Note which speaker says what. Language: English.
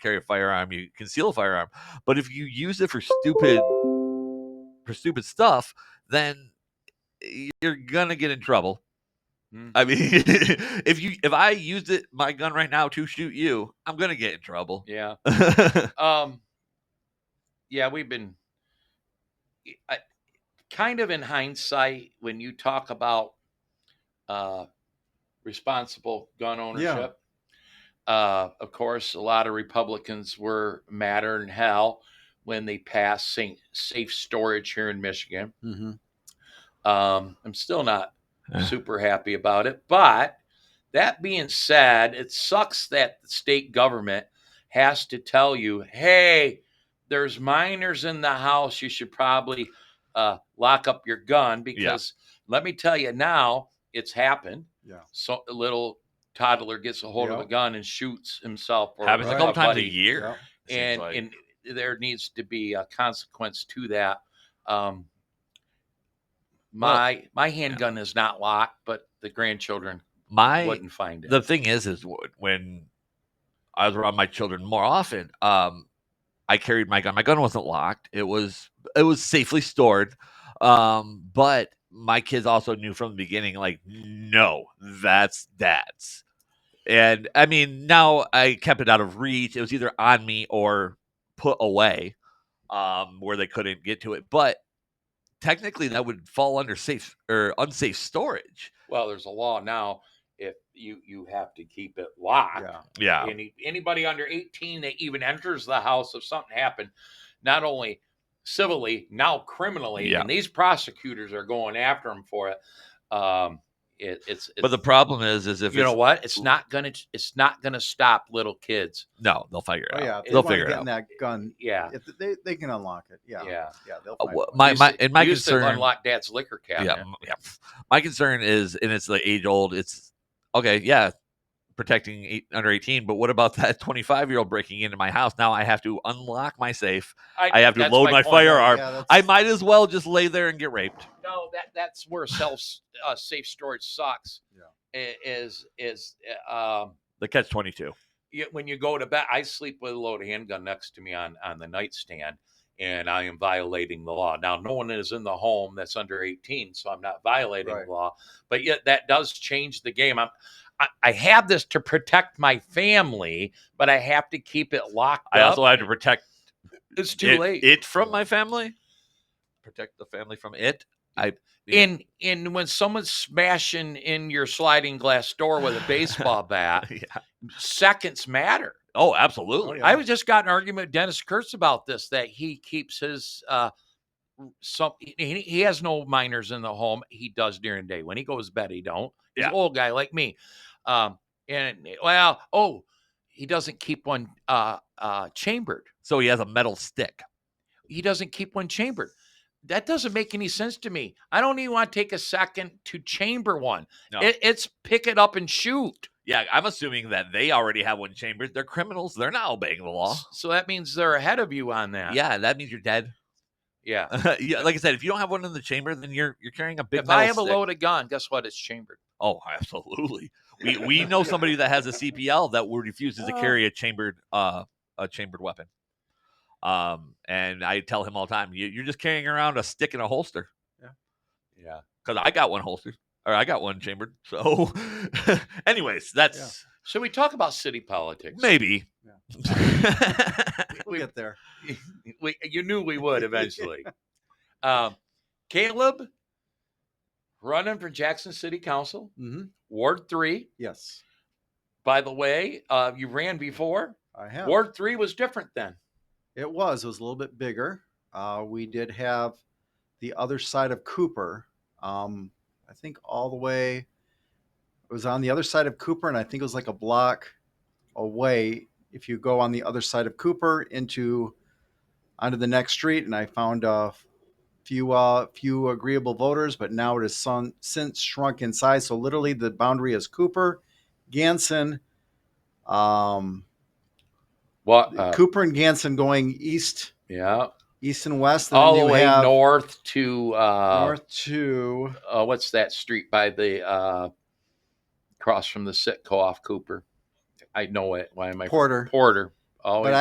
Speaker 1: carry a firearm, you conceal a firearm. But if you use it for stupid for stupid stuff, then you're gonna get in trouble.
Speaker 2: Mm.
Speaker 1: I mean, if you if I used it my gun right now to shoot you, I'm gonna get in trouble.
Speaker 2: Yeah. Um. Yeah, we've been. I, kind of in hindsight, when you talk about uh, responsible gun ownership, uh, of course, a lot of Republicans were madder than hell when they passed safe, safe storage here in Michigan.
Speaker 3: Mm-hmm.
Speaker 2: Um, I'm still not
Speaker 1: Yeah.
Speaker 2: super happy about it. But that being said, it sucks that the state government has to tell you, hey, there's minors in the house. You should probably uh, lock up your gun because let me tell you now, it's happened.
Speaker 3: Yeah.
Speaker 2: So a little toddler gets a hold of
Speaker 3: Yeah.
Speaker 2: a gun and shoots himself. Or
Speaker 1: Happens a couple times a
Speaker 2: buddy
Speaker 1: year.
Speaker 3: Yeah.
Speaker 1: it seems
Speaker 2: and
Speaker 1: like.
Speaker 2: and there needs to be a consequence to that. Um, my my handgun is not locked, but the grandchildren
Speaker 1: my
Speaker 2: wouldn't find it.
Speaker 1: the thing is is wh- when i was around my children more often um i carried my gun my gun wasn't locked it was it was safely stored um but my kids also knew from the beginning like no that's dad's and i mean now i kept it out of reach it was either on me or put away um where they couldn't get to it but technically that would fall under safe or unsafe storage
Speaker 2: well, there's a law now. If you you have to keep it locked,
Speaker 3: Yeah.
Speaker 1: yeah
Speaker 2: any anybody under 18 that even enters the house if something happened not only civilly now criminally
Speaker 1: Yeah.
Speaker 2: and these prosecutors are going after them for it um it, it's, it's
Speaker 1: but the problem is is if
Speaker 2: you
Speaker 1: it's
Speaker 2: know what it's not gonna it's not gonna stop little kids
Speaker 1: No, they'll figure it
Speaker 3: Oh
Speaker 1: out.
Speaker 3: yeah.
Speaker 1: they'll
Speaker 3: wanna
Speaker 1: figure it
Speaker 3: get
Speaker 1: out.
Speaker 3: in that gun.
Speaker 2: yeah
Speaker 3: If they they can unlock it. Yeah.
Speaker 2: yeah,
Speaker 3: Yeah. they'll
Speaker 1: Uh,
Speaker 3: find
Speaker 1: wha-
Speaker 3: one.
Speaker 1: my
Speaker 2: Used
Speaker 1: my
Speaker 2: to-
Speaker 1: and my
Speaker 2: used to
Speaker 1: concern,
Speaker 2: unlock dad's liquor
Speaker 1: yeah,
Speaker 2: cabinet
Speaker 1: m- yeah, my concern is, and it's the age old. It's okay, yeah, protecting eight, under eighteen, but what about that twenty five year old breaking into my house? Now I have to unlock my safe. I have to
Speaker 2: that's
Speaker 1: load my
Speaker 2: point.
Speaker 1: firearm.
Speaker 3: Yeah, that's-
Speaker 1: I might as well just lay there and get raped.
Speaker 2: no that that's where self uh, safe storage sucks
Speaker 3: Yeah.
Speaker 2: yeah. is is uh, um
Speaker 1: The catch twenty two.
Speaker 2: you, when you go to bed, I sleep with a loaded handgun next to me on on the nightstand, and I am violating the law. Now, no one is in the home that's under eighteen, so I'm not violating
Speaker 3: Right.
Speaker 2: the law. But yet, that does change the game. I'm, I, I have this to protect my family, but I have to keep it locked
Speaker 1: I
Speaker 2: up.
Speaker 1: also had to protect
Speaker 2: it's too
Speaker 1: it,
Speaker 2: late.
Speaker 1: it from my family. Protect the family from it.
Speaker 2: and and when someone's smashing in your sliding glass door with a baseball bat,
Speaker 1: yeah.
Speaker 2: seconds matter.
Speaker 1: Oh, absolutely.
Speaker 3: yeah.
Speaker 2: I was just got in an argument with Dennis Kurtz about this that he keeps his uh some he, he has no minors in the home. He does during the day when he goes to bed. He don't. He's
Speaker 1: Yeah.
Speaker 2: an old guy like me. Um and well, oh, he doesn't keep one uh uh chambered.
Speaker 1: So he has a metal stick.
Speaker 2: He doesn't keep one chambered. That doesn't make any sense to me. I don't even want to take a second to chamber one.
Speaker 1: No.
Speaker 2: It, it's pick it up and shoot.
Speaker 1: Yeah, I'm assuming that they already have one chambered. They're criminals. They're not obeying the law.
Speaker 2: S- So that means they're ahead of you on that.
Speaker 1: Yeah, that means you're dead.
Speaker 2: Yeah.
Speaker 1: yeah, like I said, if you don't have one in the chamber, then you're you're carrying a big.
Speaker 2: If
Speaker 1: metal
Speaker 2: I have
Speaker 1: stick.
Speaker 2: a loaded gun, guess what? It's chambered.
Speaker 1: oh, absolutely. We we know somebody that has a CPL that would refuses to
Speaker 3: Oh.
Speaker 1: carry a chambered uh a chambered weapon. Um, and I tell him all the time, you, you're just carrying around a stick and a holster
Speaker 2: Yeah.
Speaker 1: because I got one holster or I got one chambered. So, anyways, that's
Speaker 2: Should we talk about city politics?
Speaker 1: maybe.
Speaker 3: We'll get there.
Speaker 2: We, you knew we would eventually. um, Caleb running for Jackson City Council,
Speaker 3: Mm-hmm.
Speaker 2: Ward 3.
Speaker 3: Yes,
Speaker 2: By the way, uh, you ran before.
Speaker 3: I have.
Speaker 2: Ward 3 was different then.
Speaker 3: It was. It was a little bit bigger. Uh, we did have the other side of Cooper. Um, I think all the way. It was on the other side of Cooper, and I think it was like a block away. If you go on the other side of Cooper into onto the next street, and I found a few uh, few agreeable voters, but now it has sun, since shrunk in size. So literally, the boundary is Cooper, Ganson. Um,
Speaker 2: What? uh,
Speaker 3: Cooper and Ganson going east,
Speaker 2: yeah.
Speaker 3: east and west, and
Speaker 2: All
Speaker 3: then
Speaker 2: the
Speaker 3: you
Speaker 2: way
Speaker 3: have
Speaker 2: north to uh,
Speaker 3: north to
Speaker 2: uh, what's that street by the uh, across from the Sitco off Cooper? I know it. Why am I
Speaker 3: Porter.
Speaker 2: Porter.
Speaker 4: Always.
Speaker 2: But